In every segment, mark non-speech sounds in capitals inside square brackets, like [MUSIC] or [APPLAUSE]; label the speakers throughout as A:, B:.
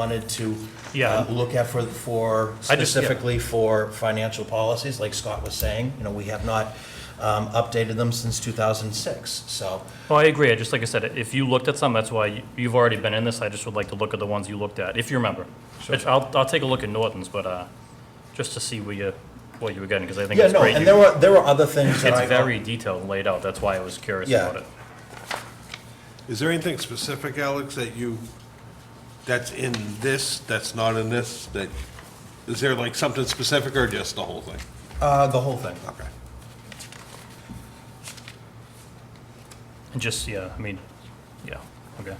A: wanted to
B: Yeah.
A: uh, look at for, for
B: I just- yeah.
A: specifically for financial policies, like Scott was saying, you know, we have not um, updated them since 2006, so.
B: Well, Oh, I agree. I just, like I said, if you looked at some, that's why you- you've already been in this. I just would like to look at the ones you looked at, if you remember. Which I'll, I'll take a look at Norton's, but, uh, just to see where you, what you were getting, because I think
A: Yeah,
B: it's
A: no,
B: great.
A: and there were, there were other things that I.
B: It's very detailed laid out. That's why I was curious
A: Yeah.
B: about it.
C: Is there anything specific, Alex, that you, that's in this, that's not in this, that, is there like something specific or just the whole thing?
A: Uh, the whole thing.
C: Okay.
B: And just, yeah, I mean, yeah, okay.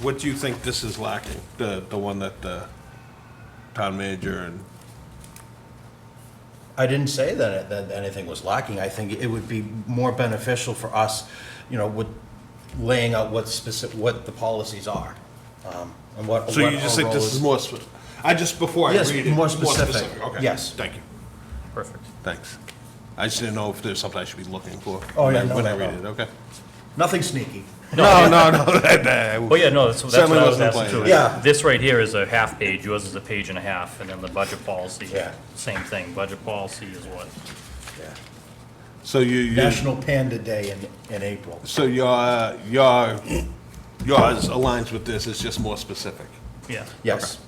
C: What do you think this is lacking, the, the one that the town manager and,
A: I didn't say that, it- that anything was lacking. I think it would be more beneficial for us, you know, with laying out what specific, what the policies are. um, And what.
C: so you
A: what
C: just
A: our
C: think
A: role
C: this is more, spe- I just, before I read
A: Yes,
C: it.
A: more specific.
C: Okay.
A: Yes.
C: Thank you,
B: Perfect.
C: thanks. I just didn't know if there's something I should be looking for.
A: Oh,
C: when
A: yeah,
C: I-
A: no,
C: When I
A: no,
C: read
A: no.
C: it, okay.
A: Nothing sneaky.
C: No, no, no, that, that.
B: Well, yeah, no, that's, that's
C: Certainly
B: what I was
C: wasn't
B: asking too.
C: planned.
A: Yeah.
B: This right here is a half page, yours is a page and a half, and then the budget policy,
A: Yeah.
B: same thing. Budget policy is what?
C: [LAUGHS] So you, you,
A: National Panda Day in, in April.
C: so your, your, yours aligns with this, it's just more specific.
B: Yeah.
A: Yes.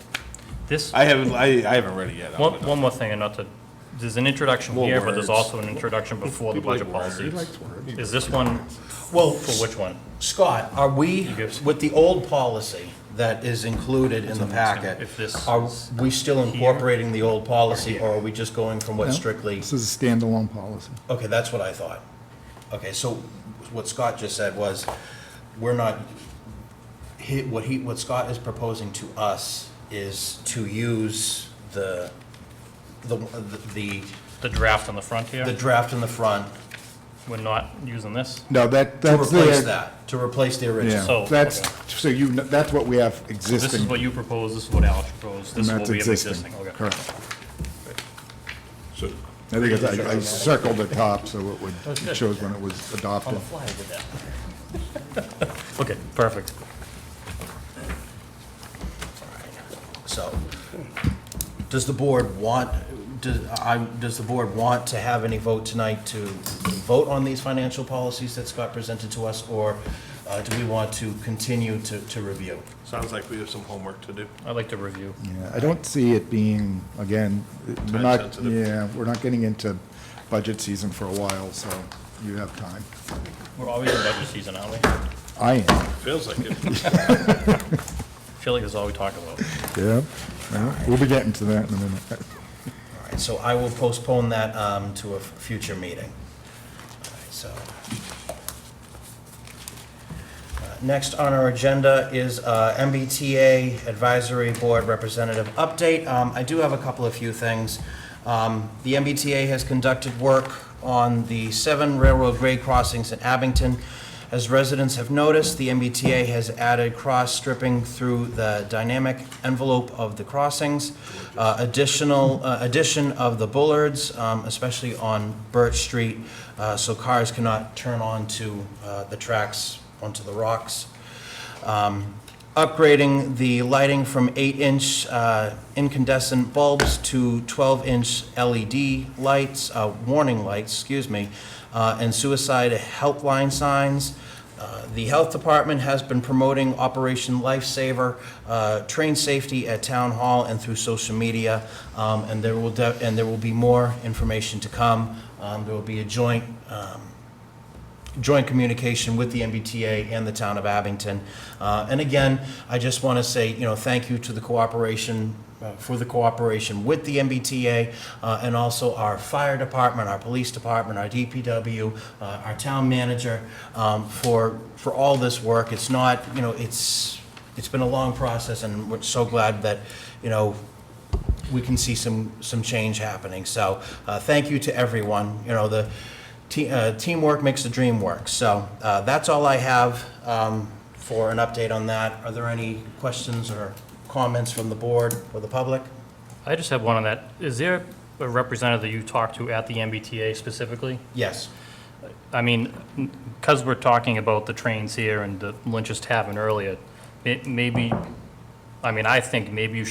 B: This,
C: I haven't, I, I haven't read it yet.
B: one, one more thing, and not to, there's an introduction
C: More
B: here, but
C: words.
B: there's also an introduction before the budget policy. Is this one,
A: Well,
B: for which one?
A: Scott, are we,
B: gives-
A: with the old policy that is included in the packet,
B: If this
A: are
B: is
A: we still incorporating the old policy or are we just going from what strictly?
D: This is a standalone policy.
A: Okay, that's what I thought. Okay, so what Scott just said was, we're not, he, what he, what Scott is proposing to us is to use the, the, the,
B: The draft on the front
A: the
B: here,
A: draft in the front
B: we're not using this?
D: No, that,
A: to
D: that's the.
A: replace that, to replace the original.
B: So,
D: Yeah, that's, so you, kn- that's what we have
B: Oh, This is
D: existing.
B: what you propose, this is what Alex proposed,
D: and
B: this is what
D: that's
B: we have
D: existing.
B: existing, okay.
D: Correct. I think it's- I I circled the top, so it would, it shows when it was adopted.
B: [LAUGHS] Okay, perfect.
A: So, does the board want, does, I, does the board want to have any vote tonight to vote on these financial policies that Scott presented to us? Or uh, do we want to continue to, to review?
C: Sounds like we have some homework to do.
B: I'd like to review.
D: Yeah, I don't see it being, again, it- we're
C: Time
D: not,
C: sensitive.
D: yeah, we're not getting into budget season for a while, so you have time.
B: We're always in budget season, aren't we? I
D: I am,
C: Feels like it.
B: feel like this is all we talk about.
D: yeah. Well, We'll be getting to that in a minute.
A: All right, so I will postpone that um, to a f- future meeting. All right, So. Uh, Next on our agenda is uh, MBTA Advisory Board Representative Update. Um, I do have a couple of few things. Um, The MBTA has conducted work on the seven railroad grade crossings in Abington. As residents have noticed, the MBTA has added cross stripping through the dynamic envelope of the crossings. Uh, Additional, uh, addition of the bullards, um, especially on Birch Street, uh, so cars cannot turn onto uh, the tracks, onto the rocks. Um, Upgrading the lighting from 8-inch uh, incandescent bulbs to 12-inch LED E lights, uh, warning lights, excuse me, uh, and suicide helpline signs. Uh, The Health Department has been promoting Operation Lifesaver, uh, train safety at Town Hall and through social media, um, and there will, de- and there will be more information to come. Um, There will be a joint um, joint communication with the MBTA and the town of Abington. Uh, And again, I just want to say, you know, thank you to the cooperation, uh, for the cooperation with the MBTA, uh, and also our fire department, our police department, our DPW, uh, our town manager, um, for, for all this work. It's not, you know, it's, it's been a long process, and we're so glad that, you know, we can see some, some change happening. So, uh, thank you to everyone. You know, the te- uh, teamwork makes the dream work. So, uh, that's all I have um, for an update on that. Are there any questions or comments from the board or the public?
B: I just have one on that. Is there a representative that you talked to at the MBTA specifically?
A: Yes.
B: I mean, because we're talking about the trains here and the Lynch's Tavern earlier, it maybe I mean, I think maybe you should